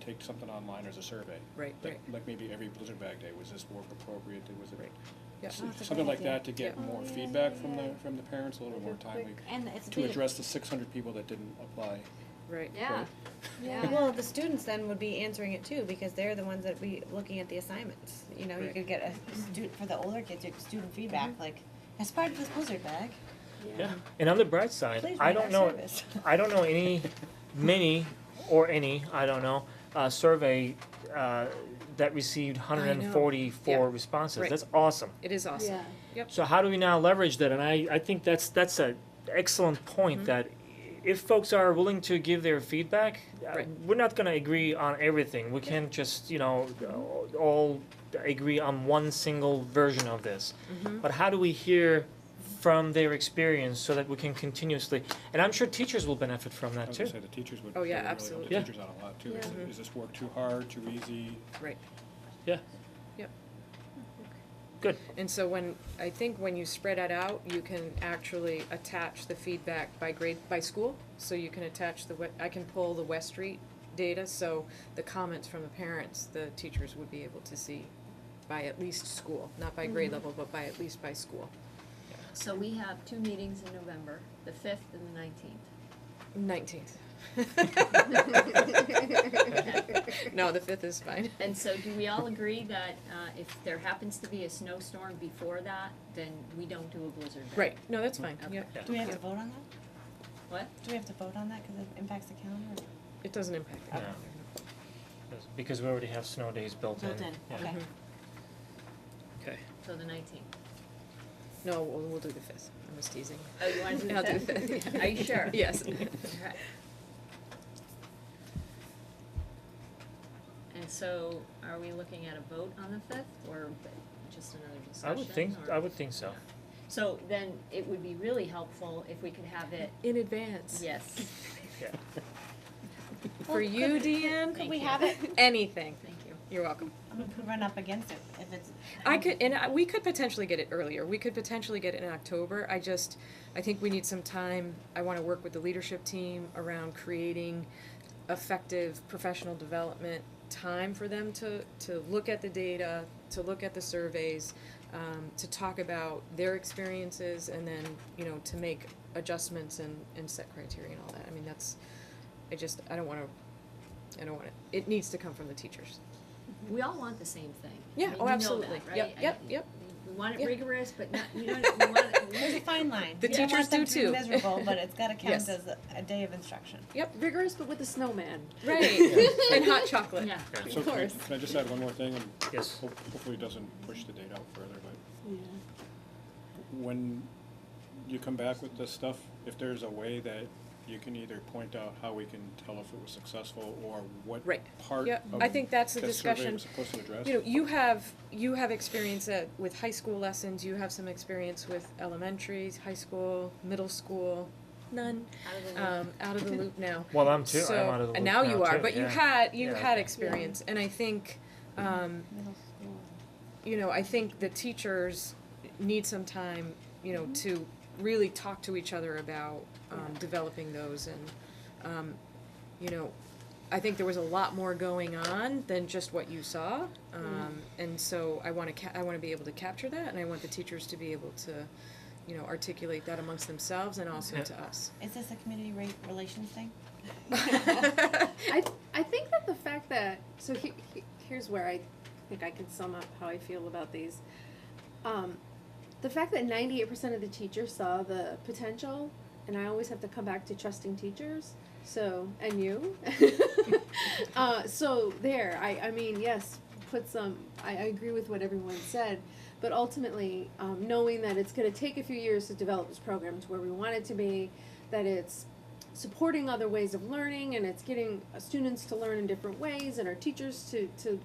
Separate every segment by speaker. Speaker 1: take something online as a survey.
Speaker 2: Right,
Speaker 1: Like-
Speaker 2: right.
Speaker 1: Like maybe every Blizzard Bag Day, was this work appropriate, was it,
Speaker 2: Right. Yeah.
Speaker 1: s-
Speaker 3: Oh, that's a
Speaker 1: something
Speaker 3: great
Speaker 1: like that to
Speaker 3: idea.
Speaker 1: get
Speaker 3: Yeah.
Speaker 1: more
Speaker 3: Oh, yeah,
Speaker 1: feedback
Speaker 3: yeah,
Speaker 1: from the,
Speaker 3: yeah.
Speaker 1: from the parents, a little more timely,
Speaker 4: And it's.
Speaker 1: to
Speaker 4: been-
Speaker 1: address the six hundred people that didn't apply.
Speaker 2: right.
Speaker 4: Yeah, yeah.
Speaker 3: Well, the students then would be answering it too, because they're the ones that be looking at the assignments, you know, you
Speaker 1: Right.
Speaker 3: could get a student, for the older kids, you could student feedback,
Speaker 2: Mm-hmm.
Speaker 3: like, as part of this Blizzard bag,
Speaker 5: Yeah, and on the bright side,
Speaker 3: please
Speaker 5: I
Speaker 3: rate
Speaker 5: don't
Speaker 3: our
Speaker 5: know,
Speaker 3: service.
Speaker 5: I don't know any, many, or any, I don't know, uh, survey, uh, that received hundred and forty-four
Speaker 2: Yeah.
Speaker 5: responses,
Speaker 2: Right.
Speaker 5: that's awesome.
Speaker 2: It is awesome.
Speaker 4: Yeah.
Speaker 5: So how do we now leverage that? And I, I think that's, that's a excellent point, that if folks are willing to give their feedback, uh,
Speaker 2: Right.
Speaker 5: we're not gonna agree on everything, we can't just, you know, all agree on one single version of this. But how do we hear from their experience so that we can continuously, and I'm sure teachers will benefit from
Speaker 1: I
Speaker 5: that
Speaker 1: was
Speaker 5: too.
Speaker 1: gonna say, the teachers would,
Speaker 2: Oh,
Speaker 1: really
Speaker 2: yeah,
Speaker 1: help the
Speaker 2: absolutely.
Speaker 5: Yeah.
Speaker 1: teachers out a lot too, is,
Speaker 4: Yeah.
Speaker 1: it- is this work too hard, too easy?
Speaker 2: Right.
Speaker 5: Yeah.
Speaker 2: Yep.
Speaker 5: Good.
Speaker 2: And so when, I think when you spread it out, you can actually attach the feedback by grade, by school. So you can attach the, we- I can pull the West Street data, so the comments from the parents, the teachers would be able to see by at least school, not by grade level, but by at least by school.
Speaker 6: So we have two meetings in November, the fifth and the nineteenth.
Speaker 2: Nineteenth. No, the fifth is fine.
Speaker 6: And so do we all agree that, uh, if there happens to be a snowstorm before that, then we don't do a blizzard ban?
Speaker 2: Right, no, that's fine,
Speaker 6: Okay.
Speaker 2: yeah.
Speaker 3: Do we have to vote on that?
Speaker 6: What?
Speaker 3: Do we have to vote on that, cause it impacts the calendar?
Speaker 2: It doesn't impact the
Speaker 5: Yeah.
Speaker 2: calendar.
Speaker 5: Because we already have snow days built in.
Speaker 3: Built in,
Speaker 5: Yeah.
Speaker 3: okay.
Speaker 5: Okay.
Speaker 6: So the nineteenth.
Speaker 2: No, we'll, we'll do the fifth, I was teasing.
Speaker 6: Oh, you wanna do
Speaker 2: I'll do the
Speaker 6: the
Speaker 2: fifth,
Speaker 6: fifth?
Speaker 2: yeah.
Speaker 6: Are you sure?
Speaker 2: Yes.
Speaker 6: Alright. And so are we looking at a vote on the fifth or just another
Speaker 5: I
Speaker 6: discussion
Speaker 5: would think,
Speaker 6: or-
Speaker 5: I would think so.
Speaker 6: So then it would be really helpful if we could have it,
Speaker 2: In advance.
Speaker 6: yes,
Speaker 5: Yeah.
Speaker 2: For you, Deanne,
Speaker 3: Could
Speaker 6: Thank
Speaker 3: we
Speaker 6: you.
Speaker 3: have it?
Speaker 2: anything.
Speaker 6: thank you.
Speaker 2: You're welcome.
Speaker 3: I'm gonna run up against it if it's.
Speaker 2: I could, and I- we could potentially get it earlier. We could potentially get it in October. I just, I think we need some time. I want to work with the leadership team around creating effective professional development time for them to, to look at the data, to look at the surveys, um, to talk about their experiences and then, you know, to make adjustments and, and set criteria and all that. I mean, that's, I just, I don't want to, I don't want to, it needs to come from the teachers.
Speaker 6: We all want the same thing. I
Speaker 2: Yeah,
Speaker 6: mean,
Speaker 2: oh,
Speaker 6: you know
Speaker 2: absolutely.
Speaker 6: that, right?
Speaker 2: Yep,
Speaker 6: I-
Speaker 2: yep, yep.
Speaker 6: We want
Speaker 2: Yeah.
Speaker 6: it rigorous, but not, we don't, we want, it-
Speaker 3: There's a fine line.
Speaker 2: The
Speaker 3: You don't
Speaker 2: teachers
Speaker 3: want them
Speaker 2: do
Speaker 3: to be
Speaker 2: too.
Speaker 3: miserable, but it's gotta count
Speaker 2: Yes.
Speaker 3: as a- a day of instruction.
Speaker 2: Yep,
Speaker 4: Rigorous, but with a snowman.
Speaker 2: right. And hot
Speaker 6: we-
Speaker 2: chocolate.
Speaker 6: yeah.
Speaker 5: Of
Speaker 1: So can I,
Speaker 4: course.
Speaker 1: can I just add one more thing, and
Speaker 5: Yes.
Speaker 1: ho- hopefully it doesn't push the date out further, but
Speaker 4: Yeah.
Speaker 1: when you come back with this stuff, if there's a way that you can either point out how we can tell if it was successful or what
Speaker 2: Right.
Speaker 1: part
Speaker 2: Yep.
Speaker 1: of
Speaker 2: I think that's the
Speaker 1: the survey
Speaker 2: discussion.
Speaker 1: was supposed to address.
Speaker 2: You know, you have, you have experience at, with high school lessons, you have some experience with elementaries, high school, middle school, none,
Speaker 6: Out of the loop.
Speaker 2: um, out of the loop now.
Speaker 5: Well, I'm too,
Speaker 2: So-
Speaker 5: I'm out of the loop
Speaker 2: and
Speaker 5: now
Speaker 2: now you are,
Speaker 5: too,
Speaker 2: but you
Speaker 5: yeah.
Speaker 2: had, you
Speaker 5: Yeah.
Speaker 2: had experience, and I think, um,
Speaker 3: Middle school.
Speaker 2: you know, I think the teachers need some time, you know, to really talk to each other about, um, developing those and, um, you know, I think there was a lot more going on than just what you saw. Um, and so I wanna ca- I wanna be able to capture that and I want the teachers to be able to, you know, articulate that amongst themselves and also
Speaker 5: Yeah.
Speaker 2: to us.
Speaker 3: Is this a community rate relations thing?
Speaker 4: I, I think that the fact that, so he, he, here's where I think I can sum up how I feel about these. Um, the fact that ninety-eight percent of the teachers saw the potential, and I always have to come back to trusting teachers, so, and you. uh, so there, I, I mean, yes, put some, I, I agree with what everyone said, but ultimately, um, knowing that it's gonna take a few years to develop this program to where we want it to be, that it's supporting other ways of learning and it's getting students to learn in different ways and our teachers to, to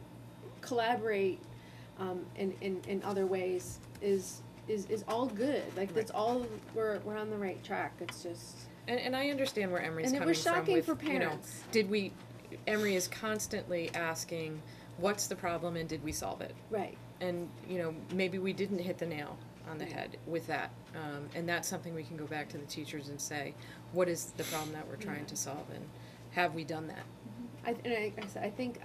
Speaker 4: collaborate um, in, in, in other ways is, is, is all good. Like, that's all, we're, we're on the right track. It's just,
Speaker 2: And, and I understand where Emery's
Speaker 4: and it
Speaker 2: coming
Speaker 4: was
Speaker 2: from
Speaker 4: shocking
Speaker 2: with,
Speaker 4: for
Speaker 2: you know,
Speaker 4: parents.
Speaker 2: did we, Emery is constantly asking, what's the problem and did we solve it?
Speaker 4: Right.
Speaker 2: and you know maybe we didn't hit the nail on the head with that um, and that's something we can go back to the teachers and say what is the problem that we're trying to solve and have we done that
Speaker 4: I, and I, I said, I think